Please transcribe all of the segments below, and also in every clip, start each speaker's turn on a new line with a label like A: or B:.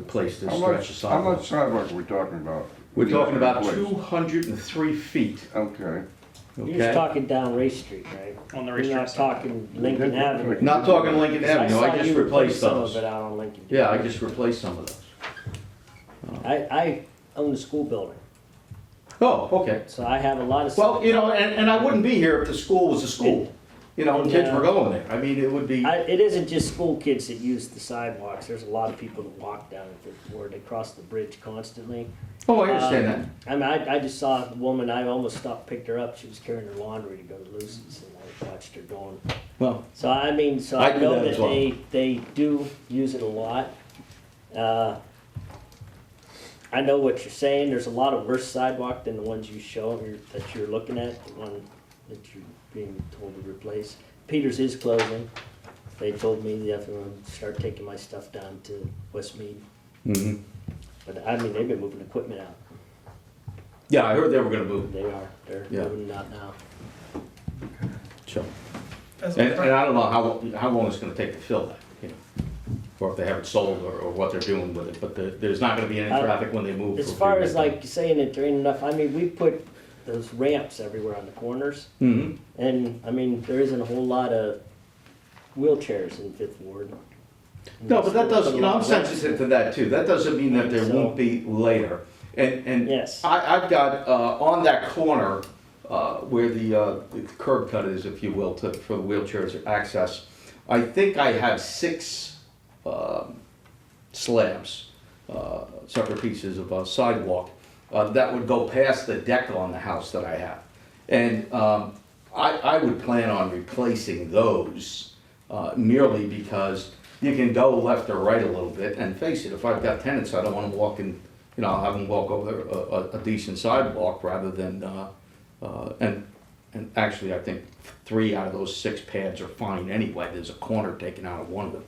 A: replace this
B: How
A: stretch of
B: much, how much
A: sidewalk.
B: sidewalk are we talking about?
A: We're talking about
B: Place.
A: two hundred and three feet,
B: Okay.
C: You're just
A: okay?
C: talking down Race Street, right?
D: on the
C: You're not
D: racetrack side.
C: talking Lincoln
B: Yeah.
C: Avenue.
A: Not talking Lincoln Avenue,
C: saw
A: I just
C: you
A: replaced
C: put Some of
A: those.
C: it out on Lincoln.
A: Yeah, I just replaced some of those.
C: I, I own a school building,
A: Oh, okay.
C: so I have a lot of.
A: Well, you know, and, and I wouldn't be here if the school was a school, you know, and kids were
C: Yeah.
A: going there. I mean, it would be,
C: I, it isn't just school kids that use the sidewalks. There's a lot of people that walk down it, that- or they cross the bridge constantly.
A: oh, I understand that.
C: Um, I mean, I, I just saw a woman, I almost stopped, picked her up. She was carrying her laundry to go to Lucy's and I watched her going.
A: Well,
C: So I mean, so
A: I
C: I
A: do
C: know
A: that as
C: that
A: well.
C: they, they do use it a lot. Uh, I know what you're saying, there's a lot of worse sidewalk than the ones you show, or that you're looking at, the one that you're being told to replace. Peters is closing, they told me they have to start taking my stuff down to Westmead,
A: mhm.
C: but I mean, they've been moving equipment out,
A: yeah, I heard they were gonna move,
C: they are, they're
A: Yeah.
C: moving it out now.
A: so.
D: As
A: And,
D: a
A: and
D: practice,
A: I don't know how, how long it's gonna take to fill that, you know, or if they have it sold or, or what they're doing with it, but the, there's not gonna be any
C: I-
A: traffic when they move.
C: As
A: from
C: far
A: here
C: as
A: to-
C: like saying that there ain't enough, I mean, we put those ramps everywhere on the corners.
A: Mhm.
C: And, I mean, there isn't a whole lot of wheelchairs in Fifth Ward.
A: No, but that doesn't, you know, I'm
C: Unless-
A: sensitive to that too. That doesn't mean that there
C: So-
A: won't be later. And, and
C: Yes.
A: I, I've got, uh, on that corner, uh, where the, uh, the curb cut is, if you will, to, for the wheelchairs access, I think I have six, um, slabs, uh, separate pieces of uh, sidewalk uh, that would go past the deck on the house that I have. And um, I, I would plan on replacing those uh, merely because you can go left or right a little bit. And face it, if I've got tenants, I don't want them walking, you know, I'll have them walk over uh, a, a- a decent sidewalk rather than, uh, uh, and, and actually, I think three out of those six pads are fine anyway. There's a corner taken out of one of them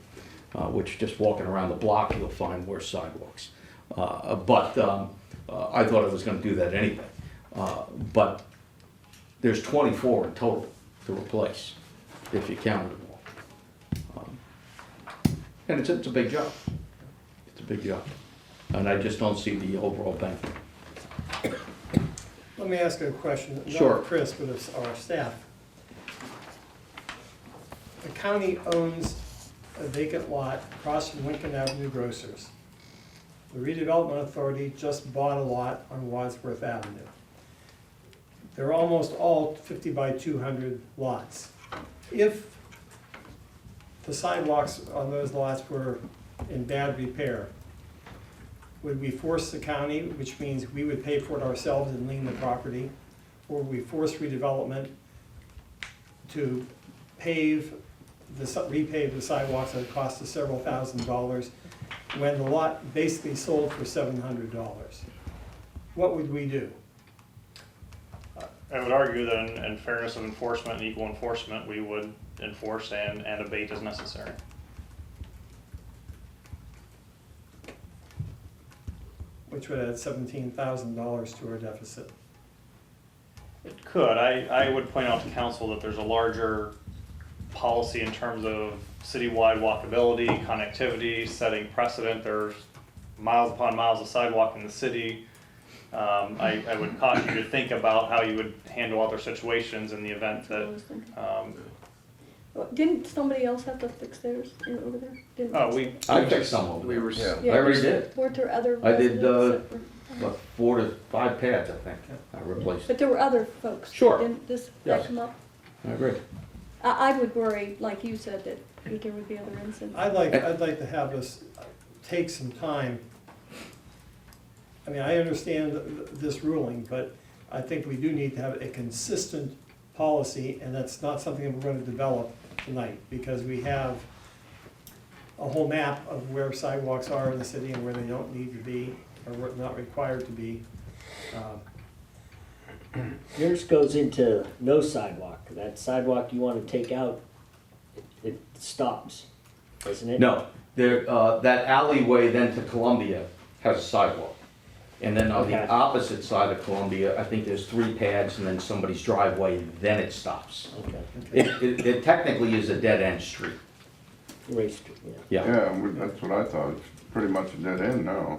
A: uh, which just walking around the block, you'll find worse sidewalks. Uh, But um, uh, I thought I was gonna do that anyway. Uh, But there's 24 in total to replace, if you counted them all. Um, And it's, it's a big job. It's a big job. And I just don't see the overall benefit.
E: Let me ask you a question.
A: Sure.
E: Not Chris, but it's our staff. The county owns a vacant lot across from Lincoln Avenue Grocers. The redevelopment authority just bought a lot on Wadsworth Avenue. They're almost all fifty by two hundred lots. If the sidewalks on those lots were in bad repair, would we force the county, which means we would pay for it ourselves and lean the property? Or would we force redevelopment to pave, the si- repave the sidewalks at a cost of several thousand dollars when the lot basically sold for seven hundred dollars? What would we do?
D: I would argue that in, in fairness of enforcement and equal enforcement, we would enforce and, and abate as necessary.
E: Which would add seventeen thousand dollars to our deficit.
D: It could, I, I would point out to council that there's a larger policy in terms of citywide walkability, connectivity, setting precedent, there's miles upon miles of sidewalk in the city. Um, I, I would caution you to think about how you would handle other situations in the event that, um,
F: Well, Oh, Didn't somebody else have to fix theirs in- over there? Didn't-
D: oh, we,
A: I fixed some of them.
G: We were, s-
B: Yeah.
A: I already
F: Yeah,
A: did.
F: Weren't there other
A: I did,
F: residents
A: uh,
F: that were-
A: About four to five pads, I think, I replaced.
F: But there were other folks.
A: Sure.
F: Didn't this,
A: Yes.
F: that come up?
A: I agree.
F: I, I would worry, like you said, that there would be other incidents.
E: I'd like, I'd like to have us take some time. I mean, I understand th- th- this ruling, but I think we do need to have a consistent policy, and that's not something that we're gonna develop tonight, because we have a whole map of where sidewalks are in the city and where they don't need to be, or where not required to be. Um,
C: Yours goes into no sidewalk. That sidewalk you wanna take out, it- it stops, doesn't it?
A: No, there, uh, that alleyway then to Columbia has a sidewalk. And then on the
C: Okay.
A: opposite side of Columbia, I think there's three pads and then somebody's driveway, then it stops.
C: Okay,
A: It, it it technically is a dead-end street.
C: Race Street, yeah.
A: Yeah.
B: Yeah, we- that's what I thought. pretty much a dead end now.